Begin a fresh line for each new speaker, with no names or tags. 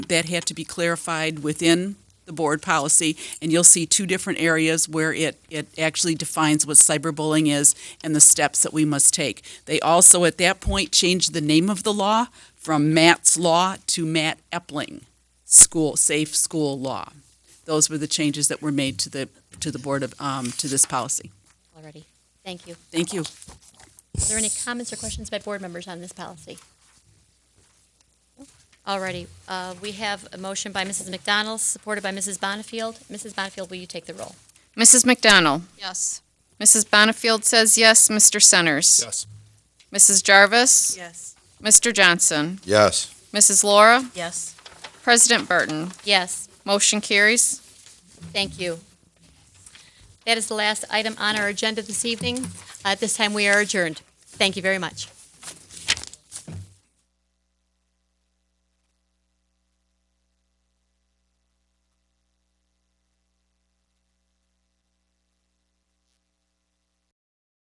that had to be clarified within the board policy, and you'll see two different areas where it, it actually defines what cyberbullying is and the steps that we must take. They also, at that point, changed the name of the law from Matt's Law to Matt Epling School, Safe School Law. Those were the changes that were made to the, to the board of, um, to this policy.
Already. Thank you.
Thank you.
Are there any comments or questions by board members on this policy? Alrighty, uh, we have a motion by Mrs. McDonald, supported by Mrs. Bonnefield. Mrs. Bonnefield, will you take the roll?
Mrs. McDonald?
Yes.
Mrs. Bonifield says yes. Mr. Centers?
Yes.
Mrs. Jarvis?
Yes.
Mr. Johnson?
Yes.
Mrs. Laura?
Yes.
President Burton?
Yes,
Motion carries.
thank you. That is the last item on our agenda this evening. At this time, we are adjourned. Thank you very much.